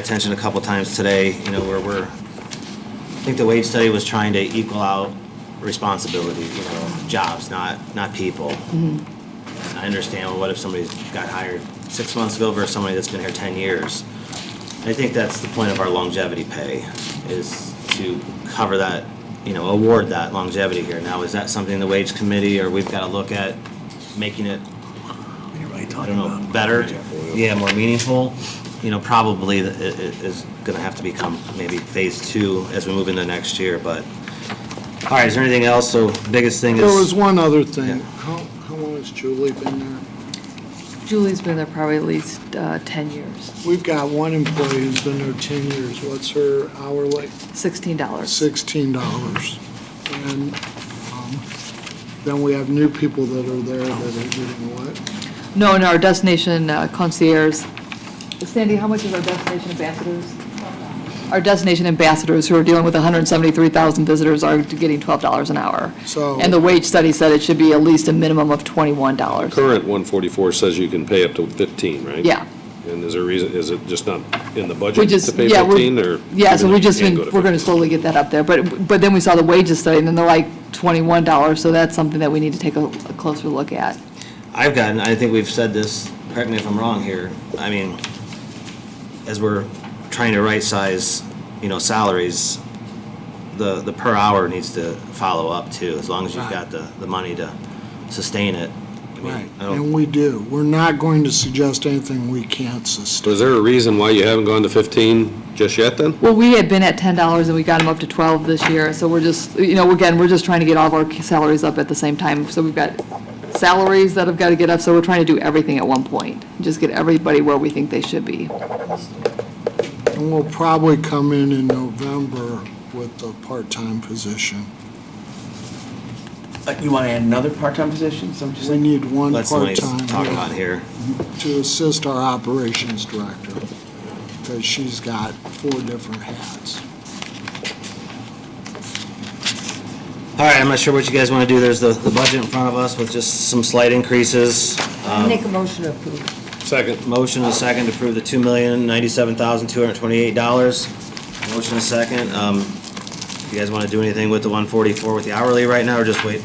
attention a couple times today, you know, where we're, I think the wage study was trying to equal out responsibility, you know, jobs, not, not people. I understand, well, what if somebody got hired six months ago versus somebody that's been here ten years? I think that's the point of our longevity pay, is to cover that, you know, award that longevity here. Now, is that something the wage committee, or we've gotta look at making it I don't know, better, yeah, more meaningful, you know, probably i- i- is gonna have to become maybe phase two as we move into next year, but, all right, is there anything else? So biggest thing There was is, one other thing. Yeah. How, how long has Julie been there? Julie's been there probably at least uh, 10 years, We've got one employee who's been there 10 years. What's her hourly? $16. $16. And um, then we have new people that are there that are getting what? No, and our destination uh, concierge, Sandy, how much is our destination ambassadors? Our destination ambassadors, who are dealing with 173,000 visitors, are getting $12 an hour. So- And the wage study said it should be at least a minimum of $21. Current 144 says you can pay up to 15, right? Yeah. And is there reason, is it just not in the We budget to just, pay yeah, 15, we're, or? yeah, so even we if you just, can't been- go to we're going to 15? slowly get that up there, but, but then we saw the wages study, and then they're like $21, so that's something that we need to take a a closer look at. I've gotten, I think we've said this, correct me if I'm wrong here, I mean, as we're trying to right-size, you know, salaries, the, the per hour needs to follow up too, as long as you've got the, the money to sustain it. I mean, I don't- And we do. We're not going to suggest anything we can't So sustain. is there a reason why you haven't gone to 15 just yet, then? Well, we had been at ten dollars and we got them up to twelve this year, so we're just, you know, again, we're just trying to get all of our salaries up at the same time. So we've got salaries that have got to get up, so we're trying to do everything at one point, just get everybody where we think they should be. And we'll probably come in in November with the part-time position. Uh, You want to add another part-time position, so I'm just We like, need one That's the money to part-time. talk yeah. about here. to assist our operations director, because she's got four different hats. All right, I'm not sure what you guys want to do. There's the, the budget in front of us with just some slight increases. Make a motion to approve. Second. Motion and a second to approve the two million, ninety-seven thousand, two hundred and twenty-eight dollars. Motion and a second. Um, you guys want to do anything with the one forty-four with the hourly right now, or just wait?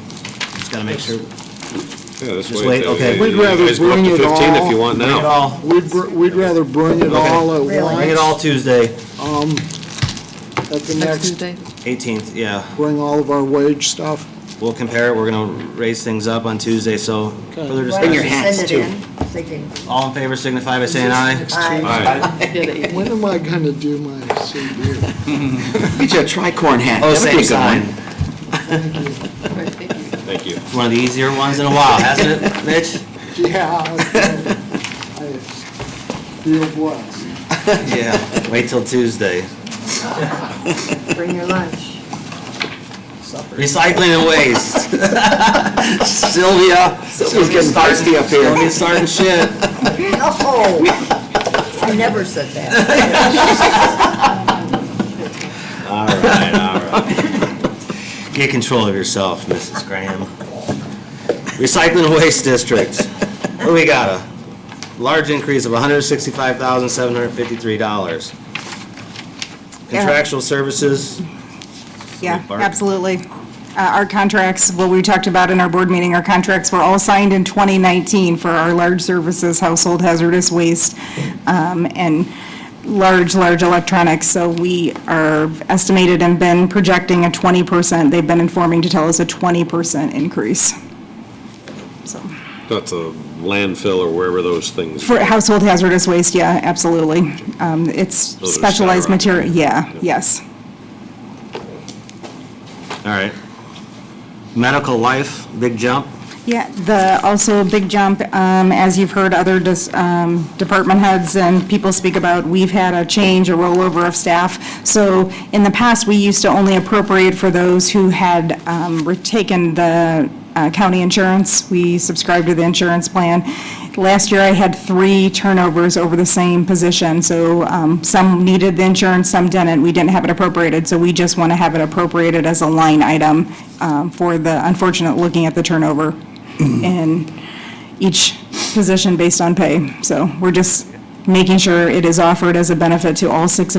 Just gotta make sure. Yeah, that's Just why wait, I- okay. you We'd rather guys go up bring to it 15 if all- you want Bring it now. all, We'd, br- we'd rather bring it Okay. all at Really? bring it once, all Tuesday, at the Next next, Tuesday? eighteenth, yeah. bring all of our wage stuff. We'll compare it. We're gonna raise things up on Tuesday, so Okay. further Why don't you discussion. Send it in, thinking, All in favor signify by saying aye. aye. Aye. When am I gonna do my CV? get you a tricorn hat. Oh, That would be same a good one. sign. Thank you. One of the easier ones in a while, hasn't it, Mitch? Yeah. I I feel blessed. Yeah, wait till Tuesday. bring your lunch. Recycling and waste. Sylvia. Sylvia's getting thirsty up here. Sylvia's starting shit. Oh, I never said that. All right, all right. Get control of yourself, Mrs. Graham. Recycling and waste district. What do we got? A large increase of $165,753. Contractual services, Yeah, Barb? absolutely. Uh, Our contracts, what we talked about in our board meeting, our contracts were all signed in 2019 for our large services, household hazardous waste, um, and large, large electronics. So we are estimated and been projecting a 20%. They've been informing to tell us a 20% increase. So, That's a landfill or wherever those things. For household hazardous waste, yeah, absolutely. Um, It's they're specialized material, yeah, yes. all right. Medical life, big jump. Yeah, the, also a big jump, um, as you've heard other dis- um, department heads and people speak about, we've had a change, a rollover of staff. So in the past, we used to only appropriate for those who had um, re- taken the uh, county insurance. We subscribed to the insurance plan. Last year, I had three turnovers over the same position, so um, some needed the insurance, some didn't. We didn't have it appropriated, so we just want to have it appropriated as a line item um, for the unfortunate, looking at the turnover in each position based on pay. So we're just making sure it is offered as a benefit to all six of